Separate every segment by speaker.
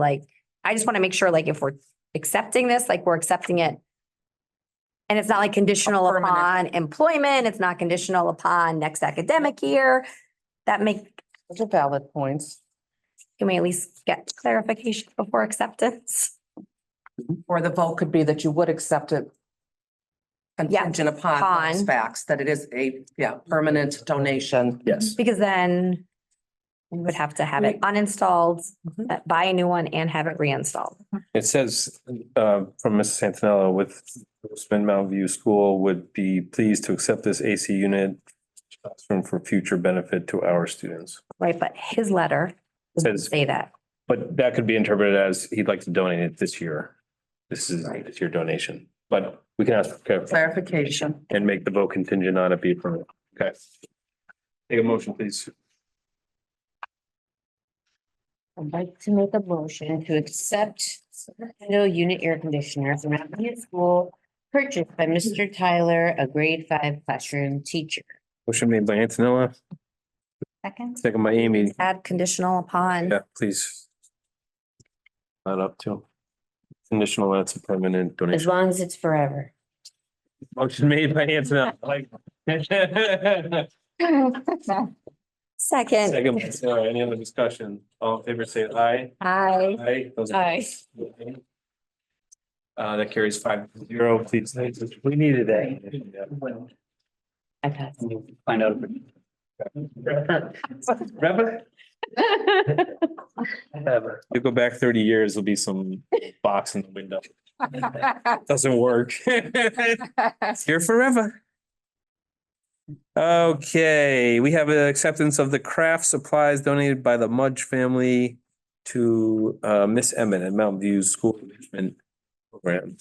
Speaker 1: like, I just want to make sure, like, if we're accepting this, like, we're accepting it. And it's not like conditional
Speaker 2: permanent.
Speaker 1: upon employment, it's not conditional upon next academic year. That make,
Speaker 2: Those are valid points.
Speaker 1: can we at least get clarification before acceptance?
Speaker 2: Or the vote could be that you would accept it contingent upon those
Speaker 1: upon.
Speaker 2: facts, that it is a, yeah, permanent donation.
Speaker 3: Yes.
Speaker 1: Because then we would have to have it uninstalled,
Speaker 2: Mhm.
Speaker 3: Mm-hmm.
Speaker 1: uh, buy a new one and have it reinstalled.
Speaker 3: It says, uh, from Mrs. Santinella with Spin Mountain View School would be pleased to accept this AC unit classroom for future benefit to our students.
Speaker 1: Right, but his letter doesn't
Speaker 3: Says-
Speaker 1: say that.
Speaker 3: But that could be interpreted as he'd like to donate it this year. This is,
Speaker 2: Right.
Speaker 3: it's your donation, but we can ask for clarification
Speaker 2: Clarification.
Speaker 3: and make the vote contingent on it be permanent. Okay. Take a motion, please.
Speaker 4: I'd like to make a motion to accept Sacramento unit air conditioner from Mountain View School purchased by Mr. Tyler, a grade five classroom teacher.
Speaker 3: Motion made by Antonella,
Speaker 4: Second.
Speaker 3: second by Amy.
Speaker 1: Add conditional upon,
Speaker 3: Yeah, please. That up to. Conditional, that's a permanent donation.
Speaker 4: As long as it's forever.
Speaker 3: Motion made by Antonella, like. Second,
Speaker 1: second,
Speaker 3: by Sarah, any other discussion? All in favor, say aye.
Speaker 1: aye.
Speaker 3: Aye. Those
Speaker 4: Aye.
Speaker 3: opposed? Uh, that carries five to zero, please. We needed that.
Speaker 4: Okay.
Speaker 3: Find out. Remember? You go back thirty years, there'll be some box in the window. Doesn't work. It's here forever. Okay, we have an acceptance of the craft supplies donated by the Mudge family to uh Miss Emmett at Mountain View School Management Program.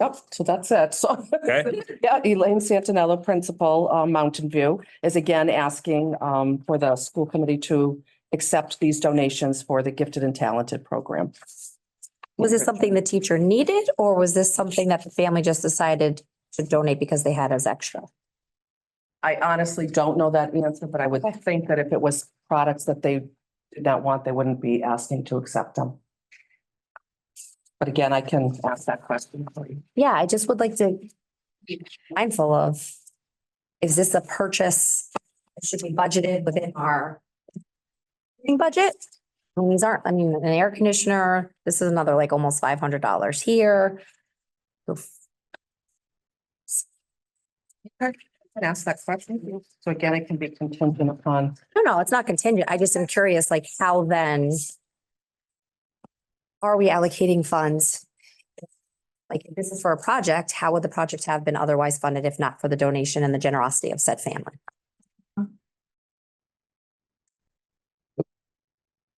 Speaker 2: Yep, so that's it. So,
Speaker 3: Okay.
Speaker 2: yeah, Elaine Santinella, principal, uh, Mountain View, is again asking, um, for the school committee to accept these donations for the gifted and talented program.
Speaker 1: Was this something the teacher needed or was this something that the family just decided to donate because they had as extra?
Speaker 2: I honestly don't know that answer, but I would think that if it was products that they did not want, they wouldn't be asking to accept them. But again, I can ask that question for you.
Speaker 1: Yeah, I just would like to be mindful of, is this a purchase? that Should be budgeted within our budget? And These aren't, I mean, an air conditioner, this is another like almost five hundred dollars here. Oof.
Speaker 2: I Can ask that question. So again, it can be contingent upon.
Speaker 1: No, no, it's not contingent. I just am curious, like how then are we allocating funds? Like if this is for a project, how would the project have been otherwise funded if not for the donation and the generosity of said family?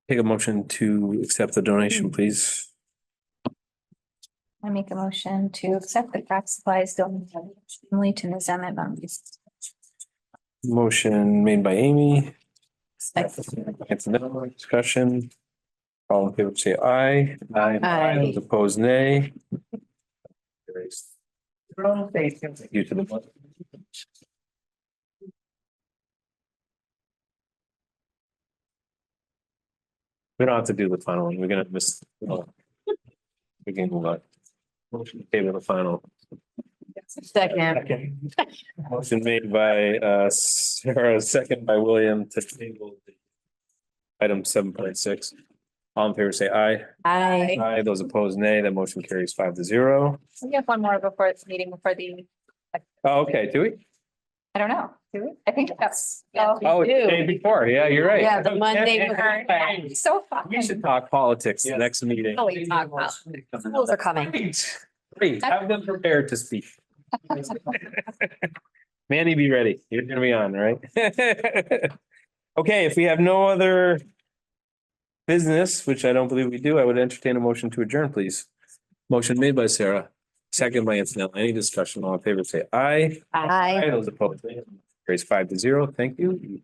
Speaker 3: Take a motion to accept the donation, please.
Speaker 5: Mm. I make a motion to accept the craft supplies donated only to Ms. Emmett Bumby.
Speaker 3: Motion made by Amy. Antonella, discussion. All in favor, say aye.
Speaker 4: Aye.
Speaker 3: Those Opposed, nay. Carries.
Speaker 2: Thank
Speaker 3: You to the. We don't have to do the final one. We're gonna miss. We can move on. Motion to table the final.
Speaker 4: Second.
Speaker 3: Motion made by uh Sarah, second by William to table. the Item seven point six. All in favor, say aye.
Speaker 1: I,
Speaker 3: Aye. Those opposed, nay. That motion carries five to zero.
Speaker 5: We have one more before this meeting, before the,
Speaker 3: Oh, Okay, do we?
Speaker 5: I don't know, do we? I think that's.
Speaker 4: Yeah.
Speaker 3: Oh, it's the
Speaker 4: do.
Speaker 3: day before. Yeah, you're right.
Speaker 4: Yeah, the Monday
Speaker 3: Okay.
Speaker 4: before.
Speaker 5: Yeah, So fun.
Speaker 3: We should talk politics the
Speaker 2: Yes.
Speaker 3: next meeting.
Speaker 4: Oh, you talk about.
Speaker 1: schools are coming.
Speaker 3: Great, great. Have them prepared to speak. Manny, be ready. You're gonna be on, right? Okay, if we have no other business, which I don't believe we do, I would entertain a motion to adjourn, please. Motion made by Sarah, second by Antonella. Any discussion? All in favor, say aye.
Speaker 1: I.
Speaker 3: Those opposed. Raise five to zero. Thank you.